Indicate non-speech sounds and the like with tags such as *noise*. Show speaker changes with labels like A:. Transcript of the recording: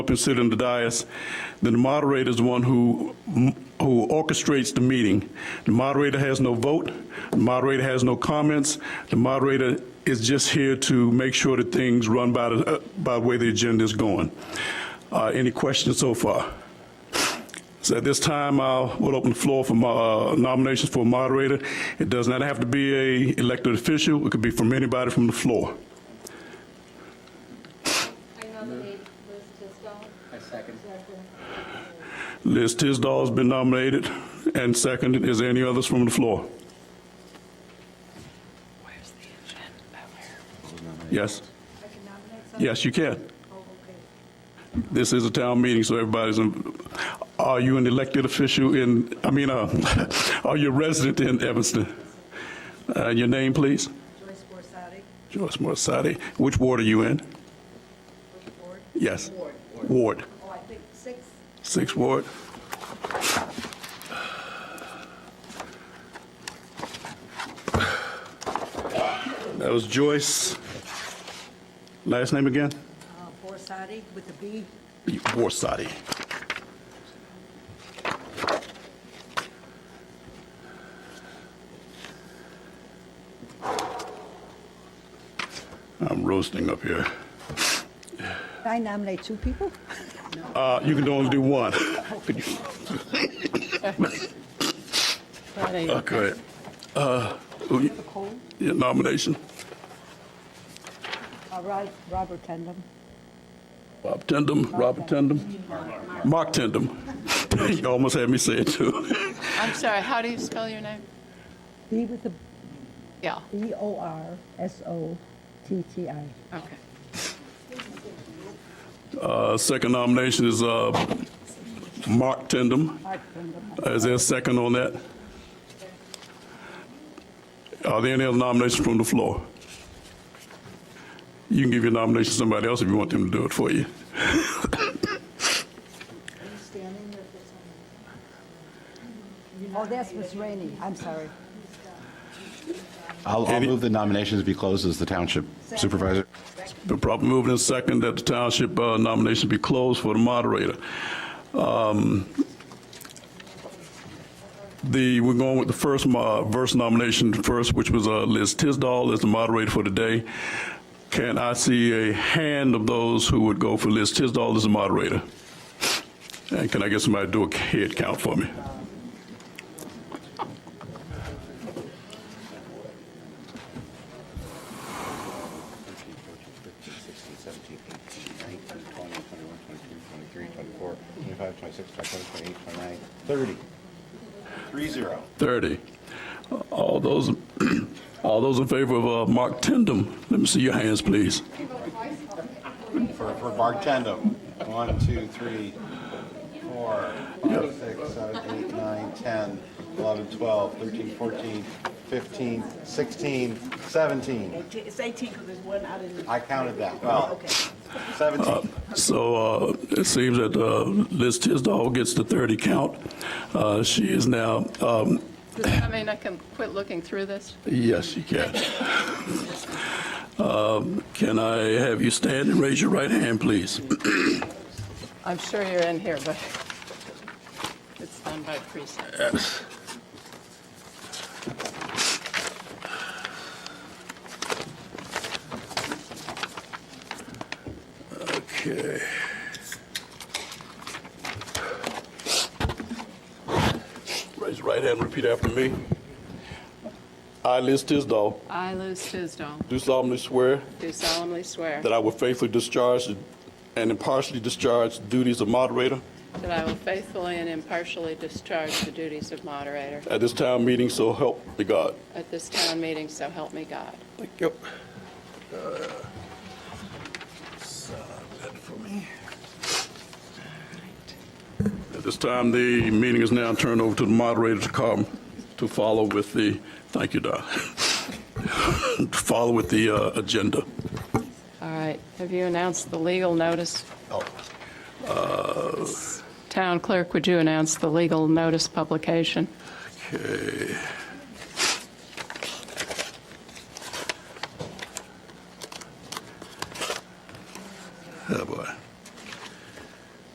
A: up and sit in the dais, then the moderator is the one who, who orchestrates the meeting. The moderator has no vote, the moderator has no comments, the moderator is just here to make sure that things run by the, uh, by the way the agenda is going. Uh, Any questions so far? So at this time, I will open the floor for mo- uh, nominations for moderator. It does not have to be a elected official, it could be from anybody from the floor.
B: I nominate Liz Tisdale.
C: I second.
A: Liz Tisdall's been nominated and seconded. Is there any others from the floor? Yes?
B: I can nominate someone?
A: Yes, you can.
B: Oh, okay.
A: This is a town meeting, so everybody's, in- are you an elected official in, I mean, uh, *laughs* are you a resident in Evanston? Uh, Your name, please?
B: Joyce Borsari,
A: Joyce Morsati. Which ward are you in?
B: which ward?
A: Yes.
B: Ward.
A: Ward.
B: Oh, I think six.
A: Sixth Ward. That was Joyce. Last name again?
B: uh, Borsari with a B.
A: Borsati. I'm roasting up here.
B: I nominate two people?
A: Uh, You can only do one. Okay. Uh, who you-
B: Cool.
A: Your nomination,
D: Uh,
B: All right, Robert Tendam.
A: Bob Tindem, Robert Tindem, Mark Tindem. *laughs* You almost had me say it, too.
E: I'm sorry, how do you spell your name?
D: B with the
E: Yeah,
D: B O R S O T T I.
E: okay.
A: Uh, Second nomination is uh, Mark Tindem. Is there a second on that? Are there any other nominations from the floor? You can give your nomination to somebody else if you want them to do it for you.
B: Oh, that's Miss Rainey, I'm sorry.
C: I'll, I'll move the nominations be closed as the township supervisor.
A: Been properly moved and second that the township uh, nomination be closed for the moderator. Um, The, we're going with the first, mo- verse nomination first, which was uh, Liz Tisdall as the moderator for today. Can I see a hand of those who would go for Liz Tisdall as the moderator? And can I get somebody to do a head count for me?
C: Thirty. Three zero.
A: 30. All those, *clears throat* all those in favor of uh, Mark Tindem, let me see your hands, please.
C: For, for bartendum. One, two, three, four, five, six, seven, eight, nine, ten, eleven, twelve, thirteen, fourteen, fifteen, sixteen, seventeen.
D: It's 18 because there's one out in.
C: I counted that. Well, seventeen.
A: So uh, it seems that uh, Liz Tisdall gets the 30 count. Uh, She is now, um,
E: Does that mean I can quit looking through this?
A: yes, she can. Um, Can I have you stand and raise your right hand, please?
E: I'm sure you're in here, but it's done by precinct.
A: Okay. Raise your right hand and repeat after me. I, Liz Tisdall,
E: I, Liz Tisdale,
A: do solemnly swear
E: do solemnly swear
A: that I will faithfully discharge and impartially discharge the duties of moderator
E: that I will faithfully and impartially discharge the duties of moderator
A: at this town meeting, so help me God.
E: at this town meeting, so help me God.
A: Thank you. that for me. At this time, the meeting is now turned over to the moderator to come, to follow with the, thank you, Don, *laughs* to follow with the uh, agenda.
E: All right, have you announced the legal notice? Town clerk, would you announce the legal notice publication?
A: Okay.